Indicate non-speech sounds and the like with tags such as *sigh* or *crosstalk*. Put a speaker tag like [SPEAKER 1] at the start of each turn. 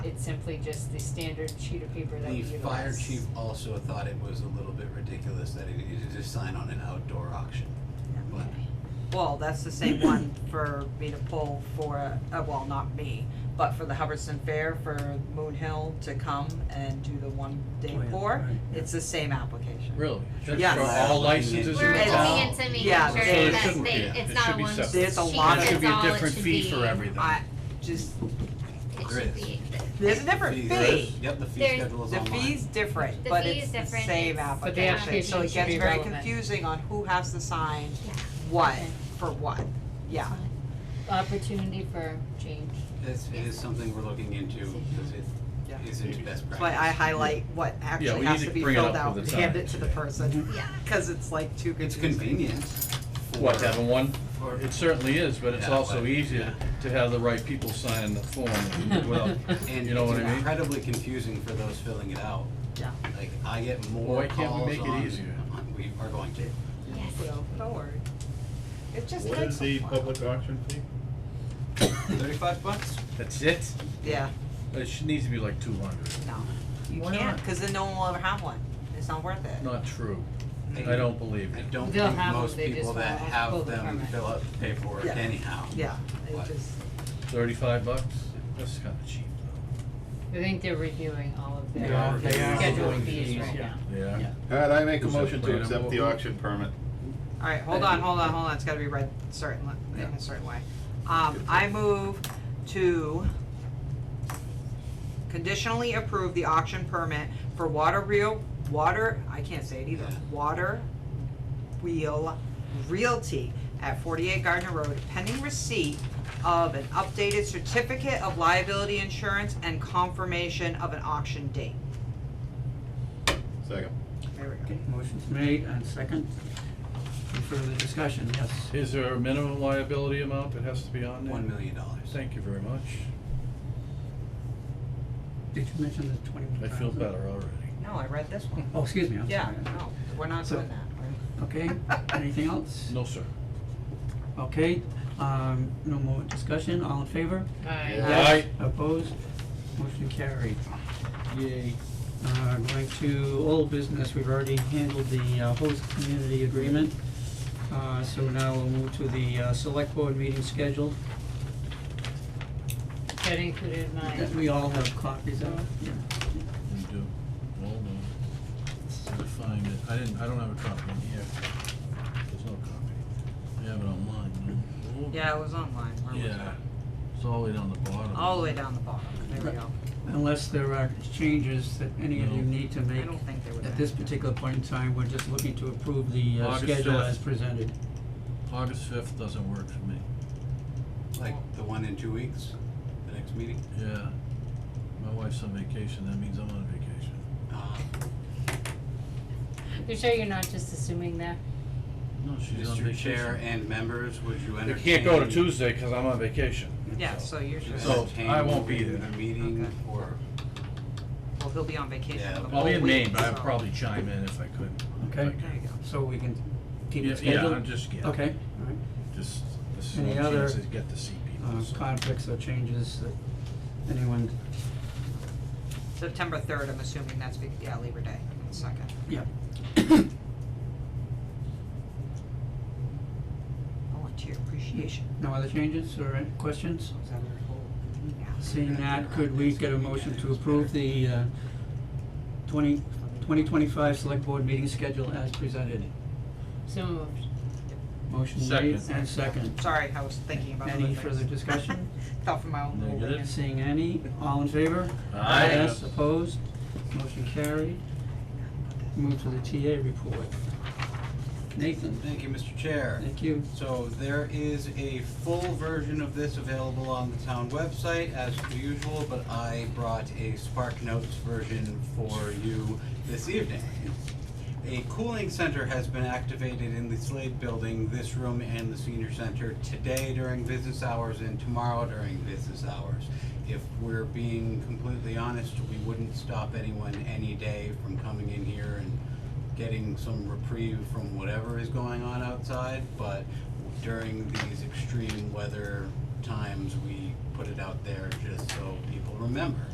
[SPEAKER 1] it's simply just the standard sheet of paper that we
[SPEAKER 2] The
[SPEAKER 1] utilize.
[SPEAKER 2] fire chief also thought it was a little bit ridiculous that he needed to sign on an outdoor auction. But
[SPEAKER 3] Well, that's the same one for me to pull for, uh, well, not me, but for the Hubbardston Fair for Moon Hill to come and do the one day
[SPEAKER 4] Oh, yeah,
[SPEAKER 3] pour.
[SPEAKER 4] right, yeah.
[SPEAKER 3] It's the same application.
[SPEAKER 5] Really? That's
[SPEAKER 3] Yes.
[SPEAKER 5] for all licenses in
[SPEAKER 6] We're
[SPEAKER 5] the
[SPEAKER 3] It's
[SPEAKER 6] looking
[SPEAKER 5] town?
[SPEAKER 3] all-
[SPEAKER 6] into making
[SPEAKER 3] yeah,
[SPEAKER 6] sure
[SPEAKER 3] So it
[SPEAKER 6] that
[SPEAKER 5] shouldn't
[SPEAKER 6] they,
[SPEAKER 5] be.
[SPEAKER 6] it's
[SPEAKER 5] It
[SPEAKER 6] not
[SPEAKER 5] should
[SPEAKER 6] a
[SPEAKER 5] be
[SPEAKER 6] one sheet,
[SPEAKER 5] separate.
[SPEAKER 3] There's a lot
[SPEAKER 6] that's
[SPEAKER 3] of-
[SPEAKER 5] It should be
[SPEAKER 6] all
[SPEAKER 5] a
[SPEAKER 6] it
[SPEAKER 5] different
[SPEAKER 6] should
[SPEAKER 5] fee for
[SPEAKER 6] be.
[SPEAKER 5] everything.
[SPEAKER 3] I just,
[SPEAKER 6] It
[SPEAKER 2] There
[SPEAKER 6] should
[SPEAKER 2] is.
[SPEAKER 6] be,
[SPEAKER 3] there's a different
[SPEAKER 2] fees-
[SPEAKER 3] fee.
[SPEAKER 2] Yep, the fee
[SPEAKER 6] There's-
[SPEAKER 2] schedule is
[SPEAKER 3] The
[SPEAKER 2] online.
[SPEAKER 3] fee's different,
[SPEAKER 6] The
[SPEAKER 3] but
[SPEAKER 6] fee
[SPEAKER 3] it's
[SPEAKER 6] is
[SPEAKER 3] the
[SPEAKER 6] different,
[SPEAKER 3] same
[SPEAKER 6] it's- But
[SPEAKER 1] the
[SPEAKER 3] application, so
[SPEAKER 1] application
[SPEAKER 3] it
[SPEAKER 1] should
[SPEAKER 3] gets
[SPEAKER 1] be
[SPEAKER 3] very
[SPEAKER 1] relevant.
[SPEAKER 3] confusing on who has to sign
[SPEAKER 6] Yeah.
[SPEAKER 3] what
[SPEAKER 1] Okay.
[SPEAKER 3] for what, yeah.
[SPEAKER 1] Opportunity for change.
[SPEAKER 2] It's, it is something we're looking into because
[SPEAKER 3] Yeah.
[SPEAKER 2] it isn't best practice.
[SPEAKER 3] That's why I highlight what actually
[SPEAKER 5] we
[SPEAKER 3] has
[SPEAKER 5] need
[SPEAKER 3] to
[SPEAKER 5] to
[SPEAKER 3] be
[SPEAKER 5] bring it
[SPEAKER 3] filled
[SPEAKER 5] up
[SPEAKER 3] out
[SPEAKER 5] for
[SPEAKER 3] and
[SPEAKER 5] the
[SPEAKER 3] hand
[SPEAKER 5] time.
[SPEAKER 3] it to the person,
[SPEAKER 6] yeah.
[SPEAKER 3] *laughs* cause it's like too
[SPEAKER 2] It's
[SPEAKER 3] confusing.
[SPEAKER 2] convenient.
[SPEAKER 5] What,
[SPEAKER 2] for-
[SPEAKER 5] to have a one?
[SPEAKER 2] for-
[SPEAKER 5] It certainly is, but it's
[SPEAKER 2] Yeah,
[SPEAKER 5] also
[SPEAKER 2] but-
[SPEAKER 5] easier to have the right people sign the form *laughs* without,
[SPEAKER 2] And
[SPEAKER 5] you know what I
[SPEAKER 2] it's
[SPEAKER 5] mean?
[SPEAKER 2] incredibly confusing for those filling it out.
[SPEAKER 3] Yeah.
[SPEAKER 2] Like, I get more
[SPEAKER 5] Why
[SPEAKER 2] calls on.
[SPEAKER 5] can't we make it easier?
[SPEAKER 2] We are going to.
[SPEAKER 6] Yes.
[SPEAKER 3] So, don't worry. It just
[SPEAKER 7] What is
[SPEAKER 3] takes a
[SPEAKER 7] the
[SPEAKER 3] while.
[SPEAKER 7] public auction fee?
[SPEAKER 2] Thirty-five bucks?
[SPEAKER 5] That's it?
[SPEAKER 3] Yeah,
[SPEAKER 5] It should, needs to be like two hundred.
[SPEAKER 3] no, you
[SPEAKER 5] Why
[SPEAKER 3] can't,
[SPEAKER 5] not?
[SPEAKER 3] cause then no one will ever have one, it's not worth it.
[SPEAKER 5] Not true. I don't believe
[SPEAKER 2] I
[SPEAKER 5] it.
[SPEAKER 2] don't
[SPEAKER 1] They'll
[SPEAKER 2] think
[SPEAKER 1] have 'em,
[SPEAKER 2] most
[SPEAKER 1] they just
[SPEAKER 2] people
[SPEAKER 1] won't
[SPEAKER 2] that
[SPEAKER 1] pull
[SPEAKER 2] have
[SPEAKER 1] the
[SPEAKER 2] them
[SPEAKER 1] permit.
[SPEAKER 2] fill out the paperwork
[SPEAKER 3] Yeah.
[SPEAKER 2] anyhow.
[SPEAKER 3] Yeah,
[SPEAKER 2] What?
[SPEAKER 3] it just,
[SPEAKER 5] Thirty-five bucks? That's kinda cheap
[SPEAKER 1] I think they're reviewing all of
[SPEAKER 4] They
[SPEAKER 1] their
[SPEAKER 4] are- they are
[SPEAKER 1] scheduled
[SPEAKER 4] doing
[SPEAKER 1] fees
[SPEAKER 4] fees,
[SPEAKER 1] right
[SPEAKER 4] yeah.
[SPEAKER 1] now.
[SPEAKER 5] though. Yeah.
[SPEAKER 7] Alright, I make a
[SPEAKER 5] Is that
[SPEAKER 7] motion to
[SPEAKER 5] plan
[SPEAKER 7] accept the
[SPEAKER 5] applicable?
[SPEAKER 7] auction permit.
[SPEAKER 3] alright, hold on, hold on, hold on, it's gotta be read certain, in a certain way. Um, I move to conditionally approve the auction permit for water reel, water, I can't say it either, water wheel realty at forty-eight Gardner Road pending receipt of an updated certificate of liability insurance and confirmation of an auction date.
[SPEAKER 7] Second.
[SPEAKER 3] There we go.
[SPEAKER 4] Okay, motion's made and second. Any further discussion? Yes.
[SPEAKER 5] Is there a minimum liability amount that has to be on there?
[SPEAKER 2] One million dollars.
[SPEAKER 5] Thank you very much.
[SPEAKER 4] Did you mention the twenty-one
[SPEAKER 5] I
[SPEAKER 4] thousand?
[SPEAKER 5] feel better already.
[SPEAKER 3] No, I read this one.
[SPEAKER 4] Oh, excuse me, I'm sorry.
[SPEAKER 3] Yeah, *laughs* no, we're not
[SPEAKER 4] So-
[SPEAKER 3] doing that. We're-
[SPEAKER 4] Okay, anything else?
[SPEAKER 5] No, sir.
[SPEAKER 4] Okay, um, no more discussion, all in favor?
[SPEAKER 1] I,
[SPEAKER 5] Aye.
[SPEAKER 4] Opposed? Motion carried.
[SPEAKER 5] Yay.
[SPEAKER 4] Uh, going to old business, we've already handled the uh, host community agreement. Uh, so now we'll move to the uh, select board meeting schedule
[SPEAKER 1] that included my.
[SPEAKER 4] that we all have copies of. Yeah.
[SPEAKER 5] We do. Well, no. Let me find it. I didn't, I don't have a copy in here. There's no copy. I have it online, no? Oh.
[SPEAKER 3] Yeah, it was online. Where was it?
[SPEAKER 5] Yeah. It's all the way down the bottom.
[SPEAKER 3] All the way down the bottom. There we
[SPEAKER 4] Right.
[SPEAKER 3] go.
[SPEAKER 4] Unless there are changes that any of you
[SPEAKER 5] No.
[SPEAKER 4] need to
[SPEAKER 3] I
[SPEAKER 4] make
[SPEAKER 3] don't think there was.
[SPEAKER 4] at this
[SPEAKER 3] any.
[SPEAKER 4] particular point in time, we're just looking to approve the uh,
[SPEAKER 5] August
[SPEAKER 4] schedule
[SPEAKER 5] fifth.
[SPEAKER 4] as presented.
[SPEAKER 5] August fifth doesn't work for me.
[SPEAKER 2] Like the one in two weeks, the next meeting.
[SPEAKER 5] Yeah. My wife's on vacation, that means I'm on vacation.
[SPEAKER 2] Uh,
[SPEAKER 1] You sure you're not just assuming that?
[SPEAKER 5] No, she's on
[SPEAKER 2] Mr. Chair
[SPEAKER 5] vacation.
[SPEAKER 2] and members, would you
[SPEAKER 5] I
[SPEAKER 2] entertain?
[SPEAKER 5] can't go to Tuesday, cause I'm on vacation.
[SPEAKER 3] Yeah, so you're sure.
[SPEAKER 5] So-
[SPEAKER 2] entertain
[SPEAKER 5] I won't be
[SPEAKER 2] moving
[SPEAKER 5] there.
[SPEAKER 2] The meeting
[SPEAKER 3] Okay.
[SPEAKER 2] or,
[SPEAKER 3] Well, he'll be on vacation
[SPEAKER 2] Yeah,
[SPEAKER 3] for the
[SPEAKER 5] I'll
[SPEAKER 3] whole
[SPEAKER 5] be
[SPEAKER 3] week.
[SPEAKER 5] in Maine, but I'd
[SPEAKER 3] so-
[SPEAKER 5] probably chime in if I could. if I
[SPEAKER 4] Okay.
[SPEAKER 5] could.
[SPEAKER 3] There you go.
[SPEAKER 4] So we can keep
[SPEAKER 5] Yeah,
[SPEAKER 4] it
[SPEAKER 5] yeah,
[SPEAKER 4] scheduled?
[SPEAKER 5] I'm just, yeah.
[SPEAKER 4] Okay, all right.
[SPEAKER 5] Just, this is
[SPEAKER 4] Any
[SPEAKER 5] one
[SPEAKER 4] other,
[SPEAKER 5] chance to get to see people,
[SPEAKER 4] Uh,
[SPEAKER 5] so.
[SPEAKER 4] conflicts or changes that anyone,
[SPEAKER 3] September third, I'm assuming that's, be- yeah, Labor Day, the second.
[SPEAKER 4] yeah,
[SPEAKER 3] *coughs* Volunteer appreciation.
[SPEAKER 4] no other changes or any questions?
[SPEAKER 3] Is that our whole meeting hours?
[SPEAKER 4] Seeing that, could we get a motion to approve the uh, 20 2025 Select Board meeting schedule as presented?
[SPEAKER 1] So moved.
[SPEAKER 4] Motion made
[SPEAKER 5] Second.
[SPEAKER 4] and second.
[SPEAKER 3] Sorry, I was thinking about other
[SPEAKER 4] Any
[SPEAKER 3] things.
[SPEAKER 4] further discussion?
[SPEAKER 3] *laughs* Thought from my own little
[SPEAKER 5] Negative.
[SPEAKER 4] Seeing any, all in favor?
[SPEAKER 5] Aye.
[SPEAKER 4] Yes, opposed, motion carried. Move to the TA report. Nathan,
[SPEAKER 2] thank you, Mr. Chair.
[SPEAKER 4] thank you.
[SPEAKER 2] So there is a full version of this available on the town website as per usual, but I brought a Spark Notes version for you this evening. A cooling center has been activated in the Slade Building, this room and the senior center today during business hours and tomorrow during business hours. If we're being completely honest, we wouldn't stop anyone any day from coming in here and getting some reprieve from whatever is going on outside, but during these extreme weather times, we put it out there just so people remember.